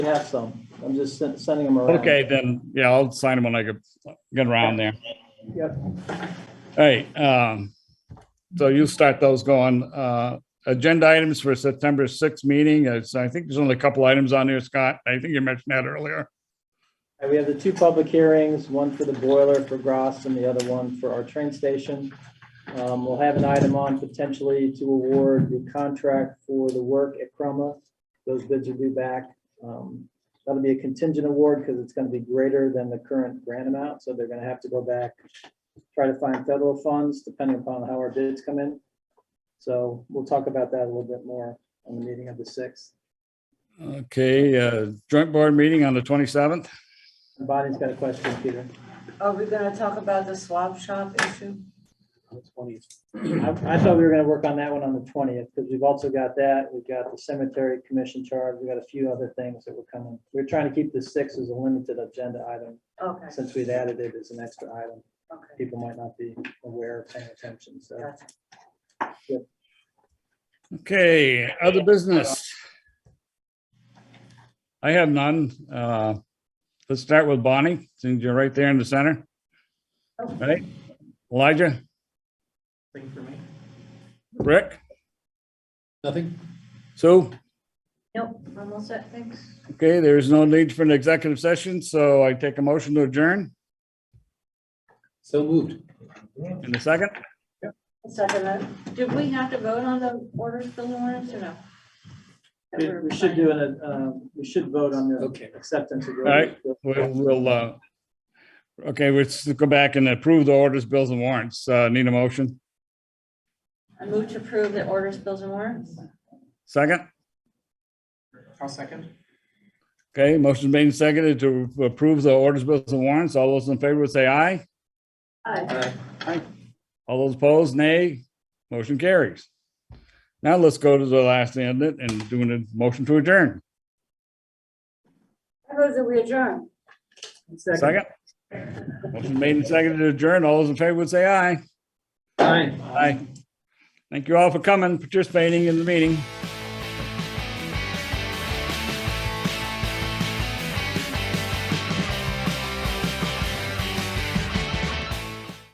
We have some. I'm just sen- sending them around. Okay, then, yeah, I'll sign them when I get, get around there. Yep. All right, um, so you start those going, uh, agenda items for September sixth meeting, is, I think there's only a couple items on there, Scott, I think you mentioned that earlier. And we have the two public hearings, one for the boiler for Gross and the other one for our train station. Um, We'll have an item on potentially to award the contract for the work at Chroma. Those bids are due back. Um, That'll be a contingent award because it's going to be greater than the current grant amount, so they're going to have to go back, try to find federal funds depending upon how our bids come in. So we'll talk about that a little bit more on the meeting of the 6th. Okay, uh, joint board meeting on the twenty-seventh, Bonnie's got a question, Peter. Are we gonna talk about the swap shop issue? I I thought we were gonna work on that one on the twentieth, because we've also got that, we've got the cemetery commission charge, we've got a few other things that were coming. We're trying to keep the six as a limited agenda item, Okay, since we'd added it as an extra item. okay. People might not be aware or paying attention, so. gotcha. okay, other business. I have none, uh, let's start with Bonnie, since you're right there in the center. All right, Elijah, Thing for me? Rick, Nothing. Sue? Nope, I'm all set, thanks. Okay, there is no need for an executive session, so I take a motion to adjourn So moved. in a second. Second, that. did we have to vote on the orders for the warrants or no? We we should do an, uh, we should vote on the Okay. acceptance of. the- Alright. We'll, we'll, uh, okay, let's go back and approve the orders, bills and warrants. Uh, need a motion? I move to approve the orders, bills and warrants? Second? I'll second. Okay, motion made and seconded to approve the orders, bills and warrants. All those in favor would say aye. Aye. All those opposed, nay. Motion carries. Now let's go to the last end and doing a motion to adjourn. I move that we adjourn. Second? Motion made and seconded to adjourn. All those in favor would say aye. Aye. Aye. Thank you all for coming, participating in the meeting.